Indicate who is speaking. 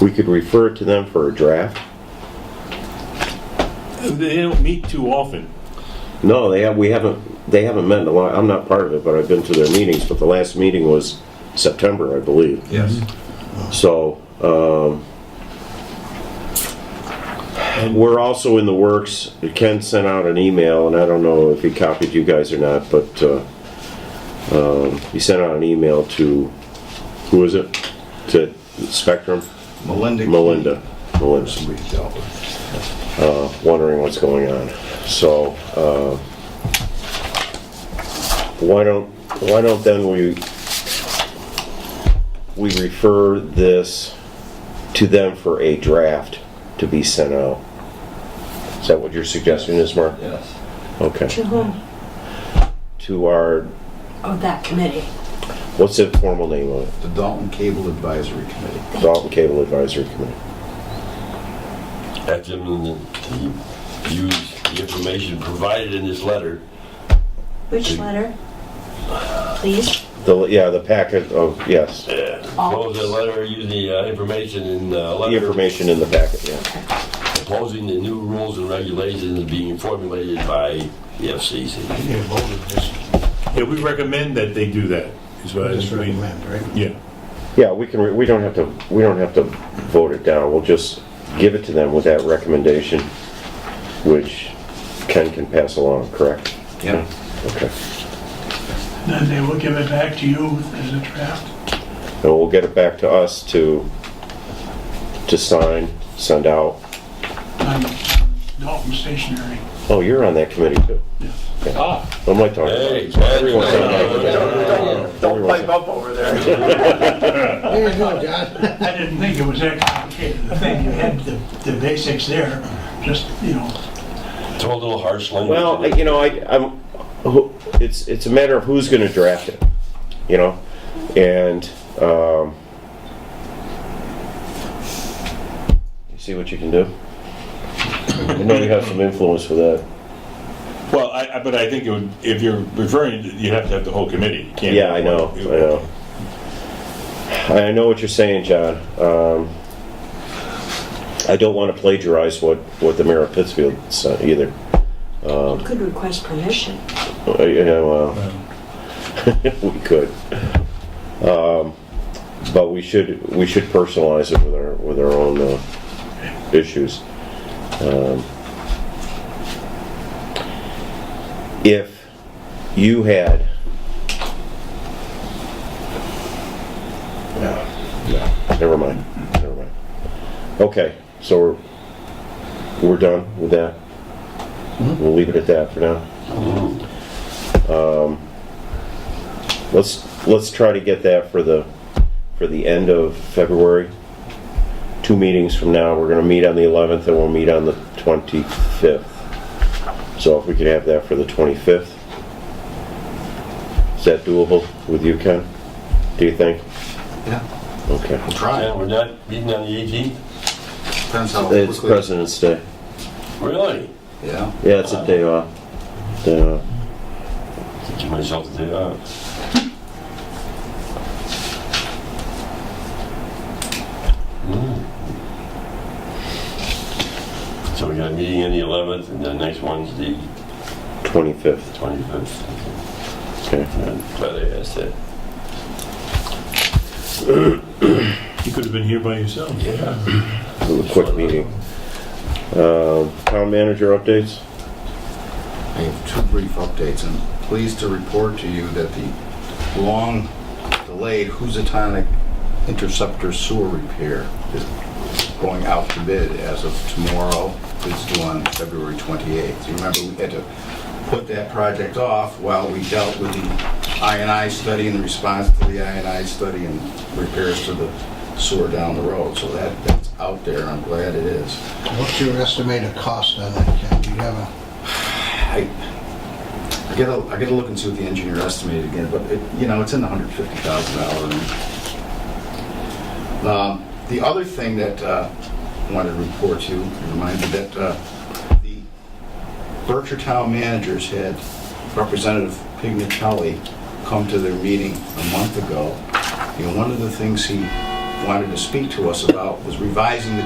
Speaker 1: we could refer it to them for a draft.
Speaker 2: They don't meet too often.
Speaker 1: No, they have, we haven't, they haven't met in a lot, I'm not part of it, but I've been to their meetings, but the last meeting was September, I believe.
Speaker 3: Yes.
Speaker 1: So, um, we're also in the works, Ken sent out an email, and I don't know if he copied you guys or not, but, uh, um, he sent out an email to, who is it? To Spectrum?
Speaker 3: Melinda.
Speaker 1: Melinda. Melinda.
Speaker 3: Key. We dealt with.
Speaker 1: wondering what's going on. So, uh, why don't, why don't then we, we refer this to them for a draft to be sent out? Is that what your suggestion is, Mark?
Speaker 3: Yes.
Speaker 1: Okay.
Speaker 4: To whom?
Speaker 1: To our,
Speaker 4: Oh, that committee.
Speaker 1: what's the formal name of it?
Speaker 3: The Dalton Cable Advisory Committee.
Speaker 1: Dalton Cable Advisory Committee.
Speaker 5: Have them to use the information provided in this letter.
Speaker 4: Which letter? Please?
Speaker 1: The, yeah, the packet of, yes,
Speaker 5: Propose the letter, use the uh, information in the
Speaker 1: Oh. the
Speaker 5: letter
Speaker 1: information in the packet, yeah.
Speaker 5: proposing the new rules and regulations being formulated by the FCC.
Speaker 6: Yeah, voted this,
Speaker 2: Yeah, we recommend that they do that, is what I
Speaker 6: this
Speaker 2: mean.
Speaker 6: recommend, right?
Speaker 2: Yeah.
Speaker 1: Yeah, we can, re- we don't have to, we don't have to vote it down, we'll just give it to them with that recommendation, which Ken can pass along, correct?
Speaker 3: Yeah.
Speaker 1: Okay,
Speaker 6: Then they will give it back to you as a draft.
Speaker 1: and we'll get it back to us to, to sign, send out.
Speaker 6: on Dalton stationery.
Speaker 1: Oh, you're on that committee too? Yeah. What am I talking
Speaker 5: Hey,
Speaker 1: about? Everyone's on that
Speaker 5: that's-
Speaker 1: Don't pipe
Speaker 6: up over there.
Speaker 7: There you go, John.
Speaker 6: I didn't think it was that complicated. I think you had the, the basics there, just, you know,
Speaker 5: Throw a little harsh language.
Speaker 1: Well, I- you know, I, I'm, who- it's, it's a matter of who's gonna draft it, you know? And, um, you see what you can do? I know you have some influence with that.
Speaker 2: Well, I, I- but I think it would- if you're referring, to- you have to have the whole committee. You can't-
Speaker 1: Yeah, I know, I know. I know what you're saying, John. Um, I don't wanna plagiarize what, what the mayor of Pittsfield said either.
Speaker 4: You could request permission.
Speaker 1: Uh, Yeah, well, uh, we could. Um, But we should, we should personalize it with our, with our own uh, issues. Um, If you had... No, no, Ah, never mind, never mind. Okay, so we're, we're done with that? We'll leave it at that for now? Let's, let's try to get that for the, for the end of February. Two meetings from now, we're gonna meet on the 11th and we'll meet on the 25th. So if we could have that for the 25th. Is that doable with you, Ken? Do you think?
Speaker 3: Yeah.
Speaker 1: Okay.
Speaker 3: We'll try
Speaker 5: Yeah,
Speaker 3: it.
Speaker 5: we're not meeting on the 18th?
Speaker 3: Depends how
Speaker 1: It's
Speaker 3: quickly.
Speaker 1: President's Day.
Speaker 5: Really?
Speaker 3: Yeah.
Speaker 1: Yeah, it's a day off. Day off.
Speaker 5: Give myself a day off. Hmm. So we got a meeting on the 11th, and the next one's the
Speaker 1: 25th,
Speaker 5: 25th.
Speaker 1: okay.
Speaker 5: I'm glad I asked that.
Speaker 2: You could have been here by yourself.
Speaker 5: Yeah.
Speaker 1: A quick meeting. Um, Town manager updates?
Speaker 3: I have two brief updates. I'm pleased to report to you that the long delayed Housatonic Interceptor sewer repair is going out to bid as of tomorrow. It's due on February 28th. You remember, we had to put that project off while we dealt with the INI study and the response to the INI study and repairs to the sewer down the road. So that, that's out there. I'm glad it is.
Speaker 7: What's your estimated cost on that, Ken? Do you have a,
Speaker 3: I, I gotta, I gotta look and see what the engineer estimated again, but it, you know, it's in the hundred fifty thousand dollar range. Um, the other thing that, uh, I wanted to report to, you, remind you that, uh, the Berkshire Town managers had Representative Pignatelli come to their meeting a month ago. You know, one of the things he wanted to speak to us about was revising the